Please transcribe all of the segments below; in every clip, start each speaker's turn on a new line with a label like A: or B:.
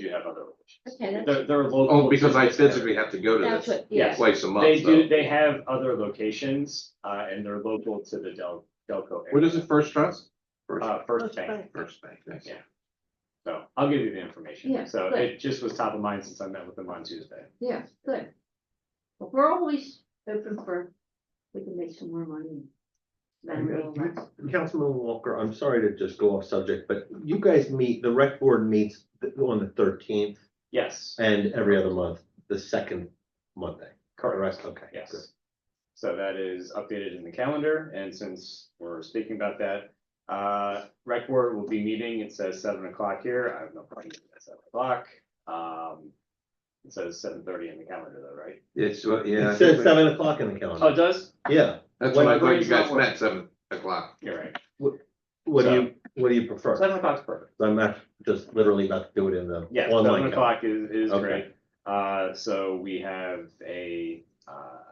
A: you have other.
B: Okay, that's,
A: There, there are local.
C: Oh, because I
A: locations
C: physically have to go to
B: that's
C: this
B: what, yeah,
C: place a month,
A: They do,
C: so.
A: they have other locations, uh, and they're local to the Del, Delco. area.
C: What is it, First Trust? First,
A: Uh, First Bank,
B: Bank.
C: First Bank, thanks.
A: Yeah. so I'll give you the information,
B: Yeah,
A: so
B: good.
A: it just was top of mind since I met with them on Tuesday.
B: yeah, good. Well, We're always open for, we can make some more money. Spend a little less.
D: Councilman Walker, I'm sorry to just go off subject, but you guys meet, the rec board meets th- on the thirteenth
A: Yes,
D: and every other month, the second Monday.
A: correct,
D: Okay. good.
A: yes. So that is updated in the calendar, and since we're speaking about that, uh, rec board will be meeting, it says seven o'clock here, I have no problem with that seven o'clock. Um, it says seven thirty in the calendar though, right?
C: It's, uh, yeah. I
D: It says
C: think-
D: seven o'clock in the
A: Oh, it
D: calendar.
A: does?
D: Yeah.
C: That's when I
D: Wait,
C: thought
A: wait,
C: you guys
A: it's not
C: met, seven o'clock.
A: You're right,
D: What do you, what do you prefer?
A: seven o'clock's perfect.
D: I'm not just literally about to do it in the
A: Yeah, seven
D: online. calendar.
A: o'clock is, is
D: Okay.
A: great. Uh, so we have a, uh,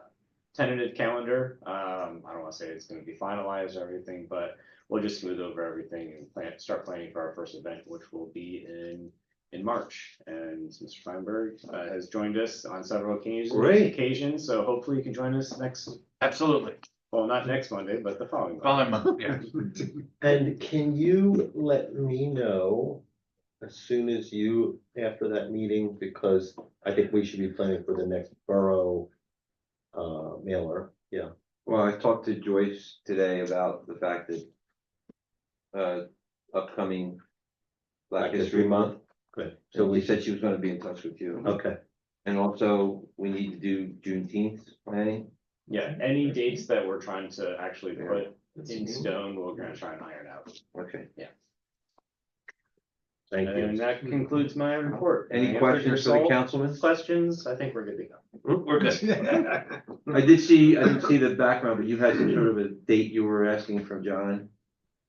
A: tentative calendar. Um, I don't wanna say it's gonna be finalized or everything, but we'll just smooth over everything and plan, start planning for our first event, which will be in, in March. And Mr. Feinberg, uh, has joined us on several occasions.
D: Great.
A: Occasions, so hopefully you can join us next,
E: Absolutely.
A: well, not next Monday, but the following. Monday.
E: Following month, yeah.
D: And can you let me know as soon as you, after that meeting, because I think we should be planning for the next borough uh, mailer, yeah.
F: Well, I talked to Joyce today about the fact that. Uh, upcoming. Black History Month,
D: Good.
F: so we said she was gonna be in touch with you,
D: Okay,
F: and also, we need to do Juneteenth planning.
A: Yeah, any dates that we're trying to actually
F: Yeah.
A: put in stone, we're gonna try and iron out.
F: Okay,
D: thank
A: And
D: you.
A: that concludes my report.
F: any
A: Answered
F: questions for the
A: yourself?
F: councilman?
A: Questions? I think we're good to go.
E: We're good.
F: I did see, I didn't see the background, but you had some sort of a date you were asking from John.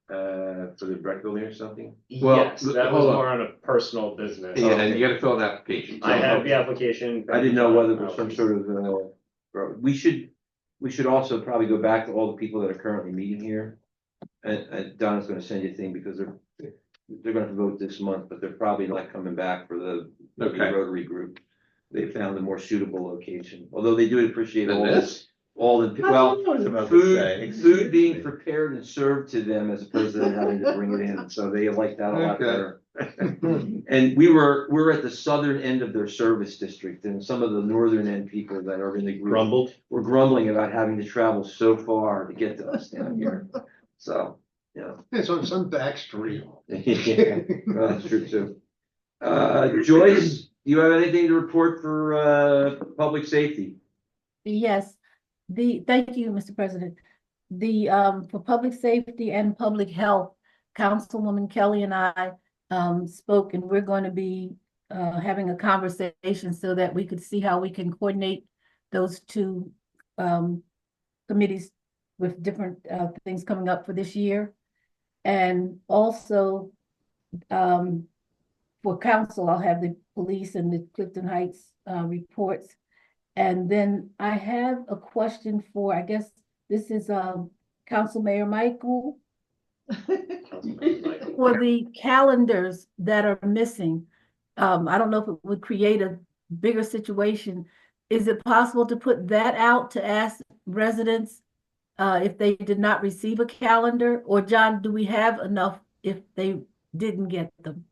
F: Uh, for the rec building or something?
C: Well,
A: Yes, that was
C: hold on.
A: more on a personal business.
C: Yeah, and you gotta fill an application.
A: I have the application.
F: I didn't know whether it was some sort of, uh, we should, we should also probably go back to all the people that are currently meeting here. And, and Donna's gonna send you a thing because they're, they're gonna vote this month, but they're probably not coming back for the the
C: Okay,
F: Rotary group. They found a more suitable location, although they do appreciate
C: then
F: all,
C: this,
F: all the, well,
D: I was about to say,
F: food,
D: excuse
F: food being
D: me.
F: prepared and served to them as opposed to them having to bring it in, so they like that a lot
C: Okay.
F: better. And we were, we're at the southern end of their service district, and some of the northern end people that are in the group
D: Grumbled,
F: were grumbling about having to travel so far to get to us down here, so, yeah.
G: It's on some back street.
F: Yeah, well, That's true too. Uh, Joyce, do you have anything to report for, uh, public safety?
H: Yes, the, thank you, Mr. President. The, um, for public safety and public health, Councilwoman Kelly and I, um, spoke and we're going to be, uh, having a conversation so that we could see how we can coordinate those two, um, committees with different, uh, things coming up for this year. And also, um, for council, I'll have the police and the Clifton Heights, uh, reports. And then I have a question for, I guess, this is um Council Mayor Michael. For the calendars that are missing, um, I don't know if it would create a bigger situation. Is it possible to put that out to ask residents uh if they did not receive a calendar? Or John, do we have enough if they didn't get them?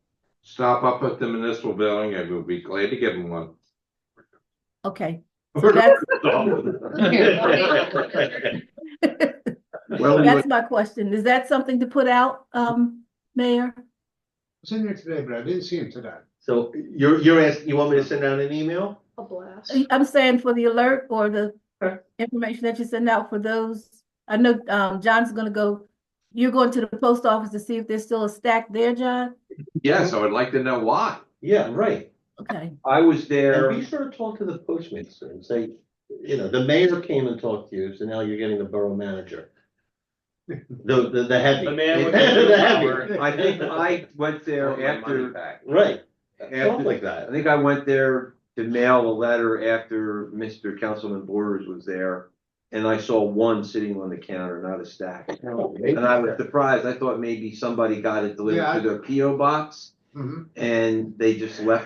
C: stop up at the municipal building, and we'll be glad to give them one.
H: Okay, so that's,
C: Well, you-
H: that's my question. Is that something to put out, um, Mayor?
G: was in there today, but I didn't see him today.
D: so you're, you're asking, you want me to send out an email?
B: A blast.
H: I'm saying for the alert or the information that you send out for those, I know, um, John's gonna go, you're going to the post office to see if there's still a stack there, John?
C: Yes, I would like to know why.
D: Yeah, right.
H: Okay,
F: I was there.
D: And be sure to talk to the postmaster and say, you know, the mayor came and talked to you, so now you're getting the borough manager. The, the, the heavy.
A: The man with
D: The
A: the
D: heavy.
A: power.
F: I think I went
C: Want
F: there
C: my money
F: after,
C: back.
D: Right, stuff
F: after,
D: like
F: I
D: that.
F: think I went there to mail a letter after Mr. Councilman Borders was there. And I saw one sitting on the counter, not a stack. And I was surprised. I thought maybe somebody got it
G: Yeah, I-
F: delivered to their PO box
G: Mhm.
F: and they just left